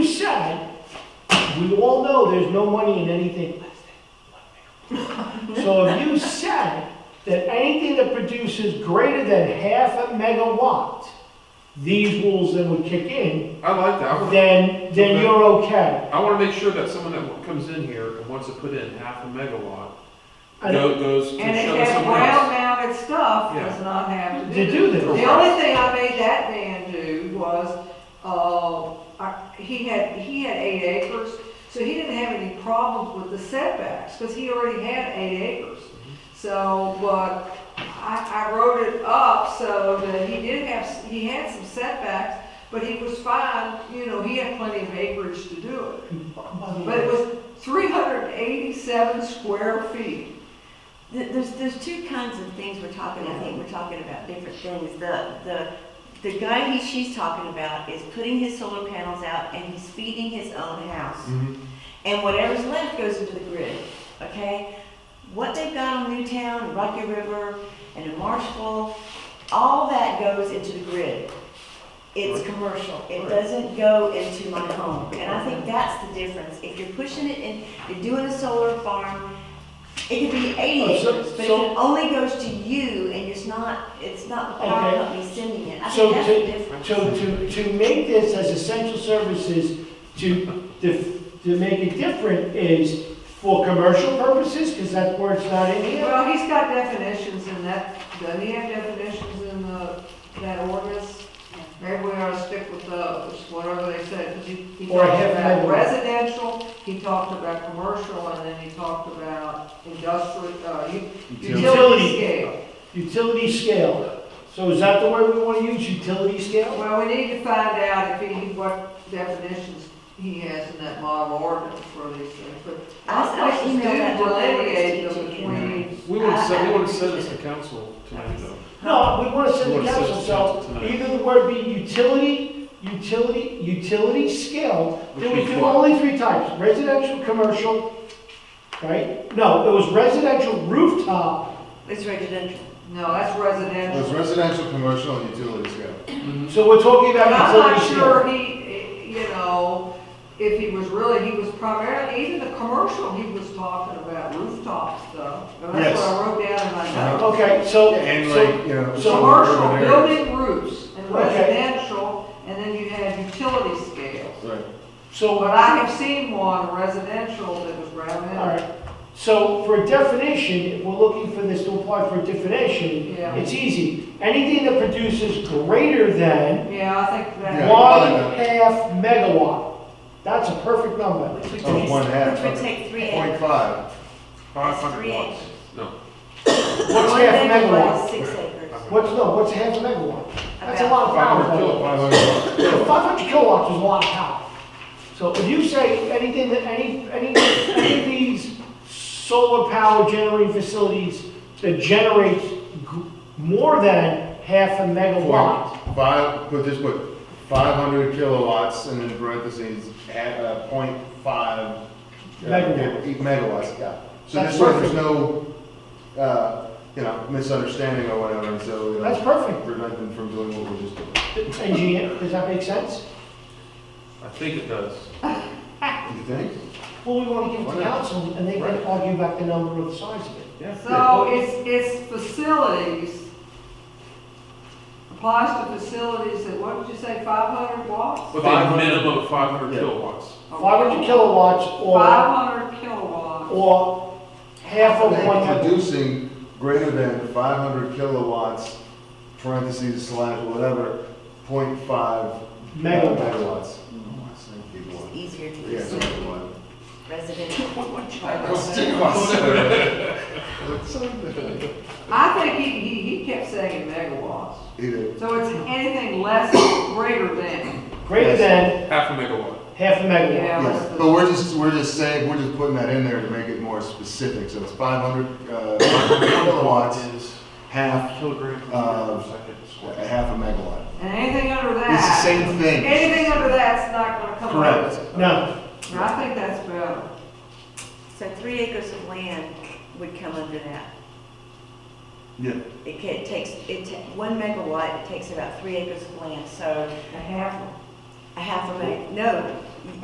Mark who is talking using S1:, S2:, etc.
S1: we all know there's no money in anything less than one megawatt. So if you said that anything that produces greater than half a megawatt, these rules then would kick in,
S2: I like that. I wanna-
S1: then, then you're okay.
S2: I want to make sure that someone that comes in here and wants to put in half a megawatt
S1: I-
S2: go- goes to
S3: And it
S2: show
S3: has
S2: someone else.
S3: ground-mounted stuff,
S2: Yeah.
S3: does not have to
S1: To
S3: do.
S1: do this,
S3: The only thing I made that man do was, uh, I- he had, he had eight acres, so he didn't have any problems with the setbacks, because he already had eight acres.
S2: Mm-hmm.
S3: So, but I, I wrote it up so that he did have, he had some setbacks, but he was fine, you know, he had plenty of acreage to do it. But it was three hundred and eighty-seven square feet.
S4: Th- There's, there's two kinds of things we're talking, I think we're talking about different things. The, the, the guy he, she's talking about is putting his solar panels out and he's feeding his own house.
S2: Mhm.
S4: And whatever's left goes into the grid, okay? What they've got on Newtown, and Rocky River, and in Marshville, all that goes into the grid. It's commercial, it doesn't go into my home, and I think that's the difference. If you're pushing it in, you're doing a solar farm, it could be eighty
S1: Oh, so-
S4: acres, but if
S1: so-
S4: it only goes to you, and it's not, it's not the
S1: Okay.
S4: power company sending it, I
S1: So
S4: think that's
S1: to-
S4: the difference.
S1: To, to, to make this as essential services, to, to, to make it different is for commercial purposes, because that word's not in here.
S3: Well, he's got definitions in that, doesn't he have definitions in the, that ordinance? Maybe we ought to stick with those, whatever they said, 'cause he, he
S1: Or
S3: talked
S1: have
S3: about
S1: that.
S3: residential, he talked about commercial, and then he talked about industrial, uh, u-
S2: Utility.
S3: utility scale.
S1: Utility scale. So is that the word we want to use, utility scale?
S3: Well, we need to find out if he, what definitions he has in that model ordinance for these things, but.
S4: I- I
S3: Let's do
S4: emailed that to the
S3: delineate
S4: ladies
S3: them
S4: to- to-
S3: between,
S2: We want to send, we want to
S4: I- I-
S2: send this to council tonight though.
S1: No, we want to send
S2: We
S1: the
S2: wanna send
S1: council,
S2: it to
S1: so
S2: council tonight.
S1: either the word be utility, utility, utility scale. Then we
S2: Which means
S1: do
S2: what?
S1: only three types, residential, commercial, right? No, it was residential rooftop,
S4: It's residential.
S3: no, that's
S5: It was
S3: residential.
S5: residential, commercial, and utility scale.
S2: Mm-hmm.
S1: so we're talking
S3: But
S1: about
S3: I'm not
S1: utility scale.
S3: sure he, you know, if he was really, he was primarily, even the commercial, he was talking about rooftop stuff. And
S1: Yes.
S3: That's
S1: Uh-huh.
S3: what I wrote down in my notes.
S1: Okay, so.
S5: And
S1: so-
S5: like, you know.
S1: so
S5: some urban
S3: Commercial,
S5: areas.
S3: building roofs, and
S1: Okay.
S3: residential, and then you had utility scales.
S5: Right.
S1: So,
S3: But I have seen one residential that was ground
S1: all
S3: mounted.
S1: right, so for definition, if we're looking for this to apply for definition,
S3: Yeah.
S1: it's easy. Anything that produces greater than
S3: Yeah, I think
S5: Yeah.
S3: that,
S1: one half megawatt, that's a perfect number.
S4: Which would
S5: Oh,
S4: take-
S5: one half,
S4: Which would
S5: okay.
S4: take three acres.
S5: Point five.
S4: That's three acres.
S1: What's
S4: One
S1: half megawatt?
S4: is Six acres.
S1: What's, no, what's half megawatt? That's a lot of
S5: Five hundred
S1: power.
S5: kilo, five hundred.
S1: Five hundred kilowatts is a lot of power. So if you say anything that, any, any, any of these solar power generating facilities that generates gr- more than half a megawatt,
S5: Point five, put this, what, five hundred kilowatts, and then parentheses, at, uh, point five. uh,
S1: Megawatts.
S5: yeah, Megawatts, yeah. So
S1: That's
S5: this way, there's no, uh, you know, misunderstanding or whatever, and so, you know.
S1: that's perfect.
S5: Prevent them from doing what we're just doing.
S1: Engineer, does that make sense?
S2: I think it does.
S5: You think?
S1: Well, we want to give it to
S2: Why not?
S1: council, and they can
S2: Right.
S1: argue back the number or the size of it.
S3: so it's, it's facilities, applies to facilities that, what did you say, five hundred watts?
S2: With a
S5: 500.
S2: minimum of five hundred
S5: Yeah.
S2: kilowatts.
S1: Five hundred kilowatts or,
S3: 500 kilowatts.
S1: or half of one
S5: They're
S1: megawatt.
S5: Producing greater than five hundred kilowatts, parentheses slash whatever, point five megawatts. Oh, I said
S4: It's
S5: gigawatt.
S4: easier to
S5: Yeah,
S4: use
S5: it's a gigawatt.
S4: residential.
S5: I was gigawatts. That's so good.
S3: I think he, he, he kept saying megawatts.
S5: He did.
S3: So it's anything less, greater than.
S1: Greater than
S2: Half a megawatt.
S1: half a megawatt.
S3: Yeah, that's
S5: Yeah,
S3: the-
S5: but we're just, we're just saying, we're just putting that in there to make it more specific, so it's five hundred, uh, 500 kilowatts,
S2: is
S5: half,
S2: kilogram per
S5: Uh,
S2: second
S5: a
S2: squared.
S5: half a megawatt.
S3: And anything under
S5: It's the
S3: that,
S5: same thing.
S3: anything under that's not gonna come up.
S5: Correct.
S1: No,
S3: And I think that's better.
S4: So three acres of land would come under that.
S5: Yeah.
S4: It ca- it takes, it ta- one megawatt, it takes about three acres of land, so
S3: A half of
S4: a half a meg, no,